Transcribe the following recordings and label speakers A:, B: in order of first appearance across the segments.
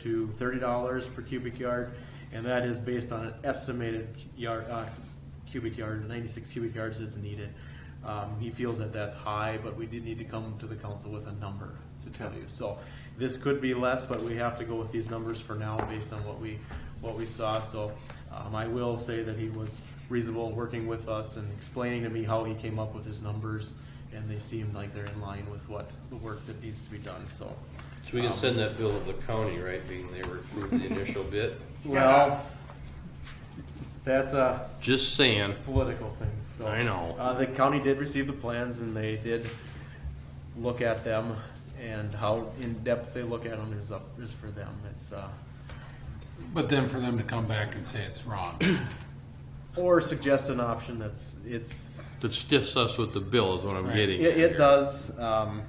A: to thirty dollars per cubic yard, and that is based on an estimated yard, uh, cubic yard, ninety-six cubic yards is needed. Um, he feels that that's high, but we did need to come to the council with a number to tell you. So this could be less, but we have to go with these numbers for now based on what we, what we saw. So, um, I will say that he was reasonable working with us and explaining to me how he came up with his numbers. And they seemed like they're in line with what, the work that needs to be done, so.
B: So we can send that bill to the county, right, being they were approved the initial bid?
A: Well, that's a
B: Just saying,
A: political thing, so.
B: I know.
A: Uh, the county did receive the plans and they did look at them and how in-depth they look at them is up, is for them. It's, uh,
C: But then for them to come back and say it's wrong.
A: or suggest an option that's, it's,
B: that stiffs us with the bill is what I'm
C: Right.
B: getting
A: It,
B: at
A: it
B: here.
A: does. Um,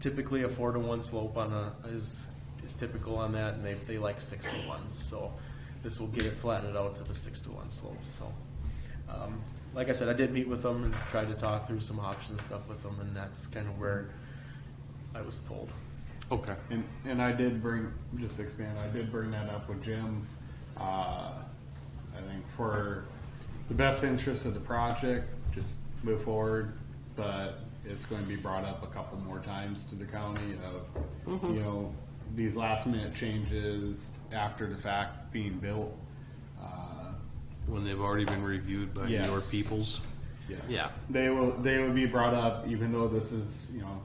A: typically, a four to one slope on a is is typical on that, and they they like six to ones. So this will get it flattened out to the six to one slope. So, um, like I said, I did meet with them and tried to talk through some options stuff with them, and that's kind of where I was told.
B: Okay.
D: And, and I did bring, just to expand, I did bring that up with Jim. Uh, I think for the best interest of the project, just move forward, but it's going to be brought up a couple more times to the county of,
B: Mm-hmm.
D: you know, these last minute changes after the fact being built. Uh,
B: When they've already been reviewed by
D: Yes.
B: your peoples?
D: Yes.
B: Yeah.
D: They will. They will be brought up, even though this is, you know,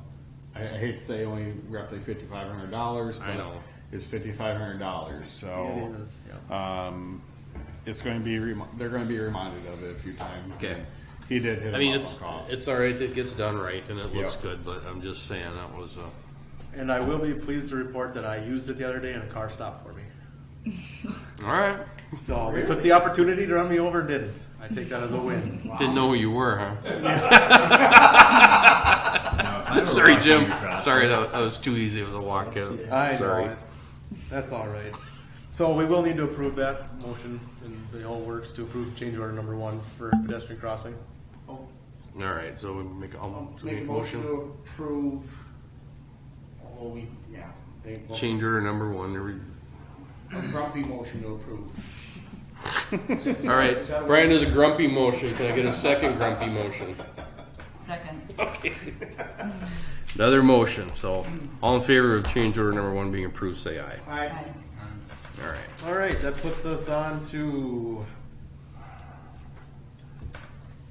D: I, I hate to say only roughly fifty five hundred dollars.
B: I know.
D: It's fifty five hundred dollars, so
A: It is, yeah.
D: um, it's going to be. Rem- they're going to be reminded of it a few times.
B: Okay.
D: And He did hit.
B: I
D: him
B: mean,
D: up
B: it's,
D: on cost.
B: it's all right, it gets done right and it looks
D: Yep.
B: good, but I'm just saying that was uh
A: And I will be pleased to report that I used it the other day, and a car stopped for me.
B: all right.
A: So they took the opportunity to run me over and didn't. I take that as a win.
B: Didn't know who you were, huh?
E: No, if I were
B: Sorry,
E: walking
B: Jim.
E: across-
B: Sorry, that that was too easy. It was a walkout.
A: I know
B: Sorry.
A: it. That's all right. So we will need to approve that motion and the whole works to approve change order number one for pedestrian crossing.
F: Oh,
B: All right, so we make, I'll
F: I'll
B: make a motion.
F: to approve, although we, yeah, they,
B: Change order number one. to re-
F: a grumpy motion to approve.
B: All right, Brian does a grumpy motion. Can I get a second grumpy motion?
G: Second.
B: Another motion, so all in favor of change order number one being approved, say aye.
F: I,
G: Aye.
B: All right.
A: All right, that puts us on to.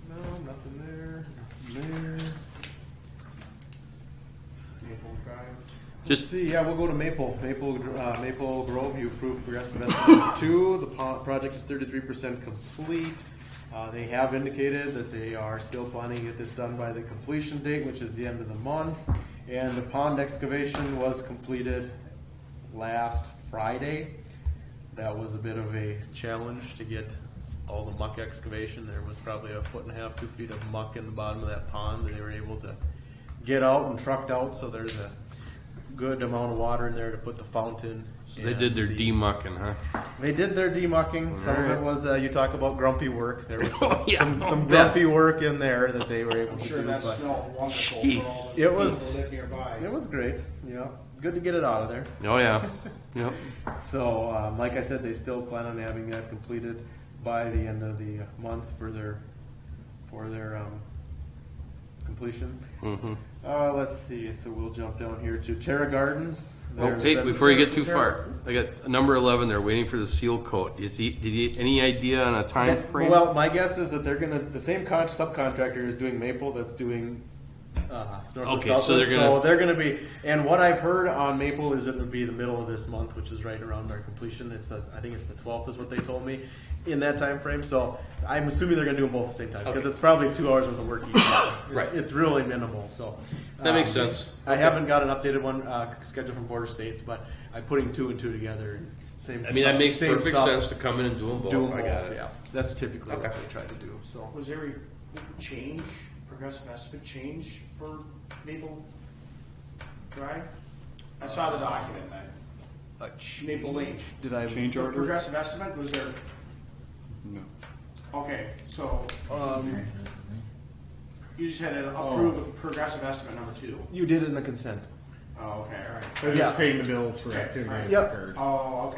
A: No, nothing there, nothing there.
F: Maple Drive.
B: Just,
A: See, yeah, we'll go to Maple, Maple, uh, Maple Grove, you approved progressive estimate number two, the po- project is thirty-three percent complete. Uh, they have indicated that they are still planning to get this done by the completion date, which is the end of the month. And the pond excavation was completed last Friday. That was a bit of a challenge to get all the muck excavation, there was probably a foot and a half, two feet of muck in the bottom of that pond that they were able to get out and trucked out, so there's a good amount of water in there to put the fountain.
B: they did their
A: and the-
B: demucking, huh?
A: They did their demucking. Some of it was uh, you talk about grumpy work. There was some,
B: Oh, yeah.
A: some, some
B: Oh,
A: grumpy work in there that they were able
F: I'm
A: to
F: sure
A: do.
F: that
A: but
F: smelled wonderful
B: Jeez.
F: for all the
A: It
F: people
A: was-
F: that live nearby.
A: it was great. Yeah, good to get it out of there.
B: Oh, yeah. Yep.
A: So, um, like I said, they still plan on having that completed by the end of the month for their for their um, completion.
B: Mm-hmm.
A: Uh, let's see. So we'll jump down here to Terra Gardens.
B: Oh,
A: There's
B: hey,
A: been-
B: before you get too
A: Terra-
B: far, I got number eleven there, waiting for the seal coat. Is he, did he, any idea on a time
A: That-
B: frame?
A: Well, my guess is that they're gonna, the same con- subcontractor is doing Maple that's doing, uh, Northwood
B: Okay, so
A: Southwood,
B: they're
A: so
B: gonna-
A: they're gonna be, and what I've heard on Maple is it would be the middle of this month, which is right around our completion, it's, the- I think it's the twelfth is what they told me, in that time frame. so I'm assuming they're gonna do them both at the same time, because
B: Okay.
A: it's probably two hours worth of work each. It's-
B: Right.
A: It's really minimal, so.
B: That makes
A: um,
B: sense.
A: I haven't got an updated one, uh, scheduled from Border States, but I'm putting two and two together, same.
B: I mean, that makes
A: same
B: perfect
A: sub-
B: sense to come in and do them both.
A: Doing both,
B: I got it.
A: yeah. That's typically what
B: Okay.
A: they try to do, so.
F: Was there a change, progressive estimate change for Maple Drive? I saw the document, I- Maple Lane.
A: Did I?
D: change order.
F: Progressive estimate, was there,
D: No.
F: okay, so
A: Um,
F: you just had to approve progressive estimate number two.
A: you did it in the consent.
F: Oh, okay, all right.
D: They're
A: Yeah.
D: just paying the bills for
F: Okay,
D: activities
A: Yep.
D: occurred.
F: Oh, okay.